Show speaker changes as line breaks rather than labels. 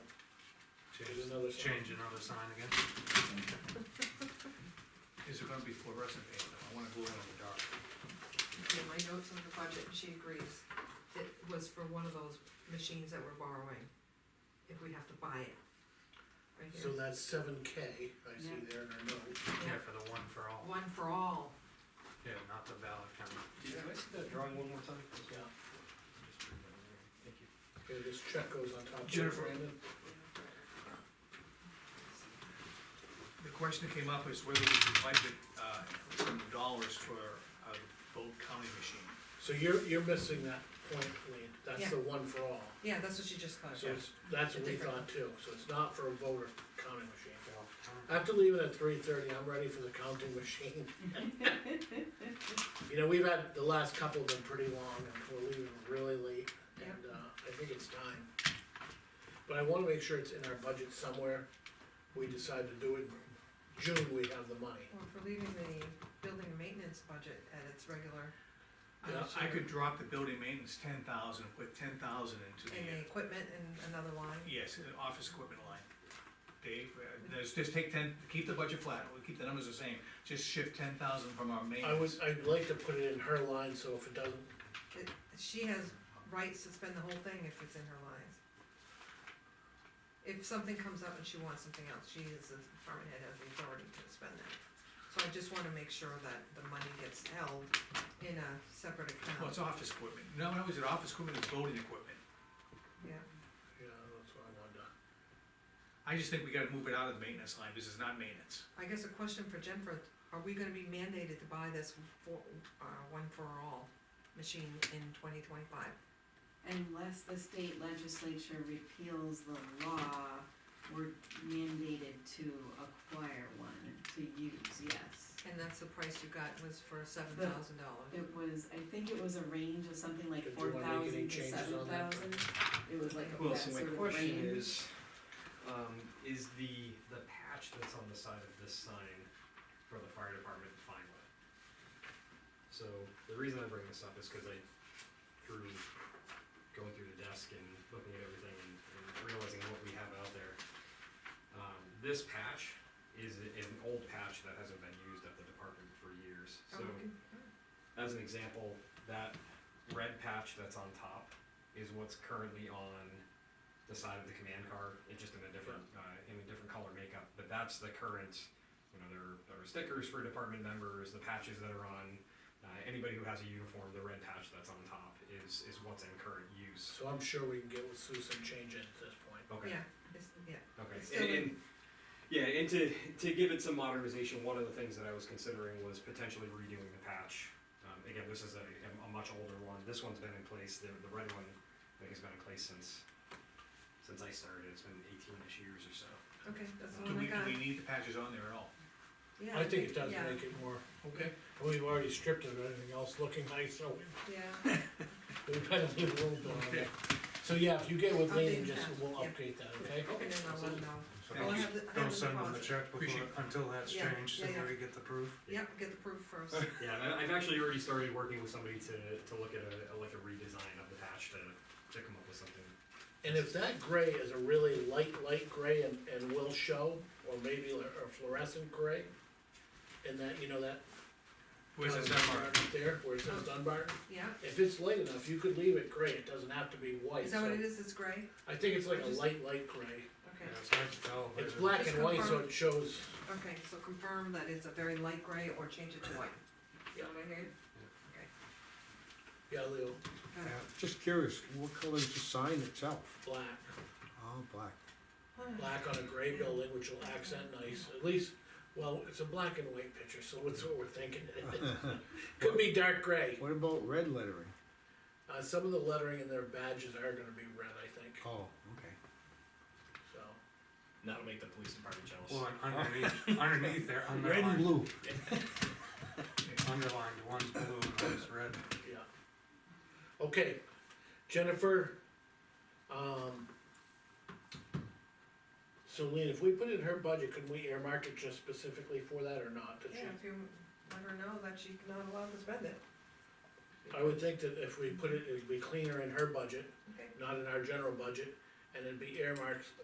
There's another sign.
Change another sign again.
Is it gonna be fluorescent paint, though? I wanna go in the dark.
Yeah, my notes on the budget, and she agrees, it was for one of those machines that we're borrowing, if we have to buy it. Right
So
here,
that's seven K, I see
Yeah.
there in our note.
Yeah, for the one for all,
one for all,
yeah, not the ballot kind of.
Can I see that drawing one more time?
Yeah.
Just read that there. Thank you.
Okay, this check goes on top of it.
Jennifer.
Brandon.
The question that came up is whether we can budget, uh, some dollars for a boat counting machine.
So you're, you're missing that point, Lean,
Yeah.
that's the one for all.
yeah, that's what she just got.
So it's, that's what we
Different.
thought too, so it's not for a voter counting machine.
ballot.
Uh,
I have to leave it at three thirty, I'm ready for the counting machine. You know, we've had, the last couple have been pretty long, and we're leaving really late, and, uh, I think it's time. But I wanna make sure it's in our budget somewhere, we decide to do it, in June we have the money.
Well, for leaving the building and maintenance budget at its regular,
Uh, I could drop the building maintenance ten thousand, put ten thousand into
and the
the, uh,
equipment in another line,
yes, uh, office equipment line. Dave, uh, let's just take ten, keep the budget flat, we'll keep the numbers the same, just shift ten thousand from our
I would,
maintenance.
I'd like to put it in her line, so if it doesn't,
it, she has rights to spend the whole thing if it's in her lines. If something comes up and she wants something else, she is, the department head has the authority to spend it. So I just wanna make sure that the money gets held in a separate
Well, it's
account,
office equipment, no, no, is it office equipment, it's voting equipment.
yeah.
yeah, that's what I wanted to.
I just think we gotta move it out of the maintenance line, this is not maintenance.
I guess a question for Jennifer, are we gonna be mandated to buy this for, uh, one for all machine in twenty twenty-five?
Unless the state legislature repeals the law, we're mandated to acquire one, to use, yes.
And that's the price you got was for seven thousand dollars.
It was, I think it was a range of something like
Did you
four
wanna make any
thousand to
changes
seven
on that?
thousand. It was like a
Well,
that
so my
sort of
question
range.
is, um, is the, the patch that's on the side of this sign for the fire department fine with? So, the reason I bring this up is cause I, through going through the desk and looking at everything and and realizing what we have out there, um, this patch is a- an old patch that hasn't been used at the department for years,
Oh,
so. As an example, that red patch that's on top is what's currently on the side of the command car. It's just in a different, uh, in a different color makeup, but that's the current, you know, there, there are stickers for department members, the patches that are on, uh, anybody who has a uniform, the red patch that's on top is, is what's in current use.
So I'm sure we can get with Susan, change it at this point.
Okay.
Yeah, it's, yeah,
Okay,
It's
and,
still in-
and, yeah, and to, to give it some modernization, one of the things that I was considering was potentially redoing the patch. Um, again, this is a, a much older one, this one's been in place, the, the red one, I think has been in place since, since I started, it's been eighteen-ish years or so.
okay, that's
Uh,
Do
the one I
we, do
got,
we need the patches on there at all?
yeah.
I think it does
yeah,
make it more,
Okay.
we've already stripped it of anything else looking nice, so
Yeah,
we better leave a little bit on
Okay.
it. So yeah, if you get with Lean, and
Update
just,
that,
we'll
yeah.
update that, okay?
and then I'll let them know,
Thank
I'll
you.
have the, I
Don't
have the
send them the
deposit,
check before,
Appreciate it.
until that's
Yeah,
changed, so
yeah, yeah.
we get the proof.
yep, get the proof first,
Yeah, and I- I've actually already started working with somebody to, to look at a, like a redesign of the patch to, to come up with something.
And if that gray is a really light, light gray and, and will show, or maybe a fluorescent gray, and that, you know, that.
Where's
uh,
this at, Mark?
right There, where it
Oh.
says Dunbar,
yeah,
if it's light enough, you could leave it gray, it doesn't have to be white,
is that what
so-
it is, it's gray,
I think it's like
I
a
just-
light, light gray,
Yeah,
okay,
it's hard to tell.
it's
but-
black
Just
and white, so
confirm.
it shows,
okay, so confirm that it's a very light gray or change it to white. Is that what I heard?
yeah, Leo,
Got it.
Just curious, what color is the sign itself?
black.
Oh, black.
black on a gray building, which will accent nice, at least, well, it's a black and white picture, so that's what we're thinking. Could be dark gray,
What about red lettering?
uh, some of the lettering in their badges are gonna be red, I think,
Oh, okay.
so.
That'll make the police department jealous.
Well, and underneath, underneath there,
Red and
underlined,
blue.
underlined, one's blue and one's red.
Yeah. Okay, Jennifer, um. So Lean, if we put it in her budget, could we earmark it just specifically for that or not? Did she-
Yeah, if you let her know that she's not allowed to spend it,
I would think that if we put it, it'd be cleaner in her budget,
okay,
not in our general budget, and it'd be earmarked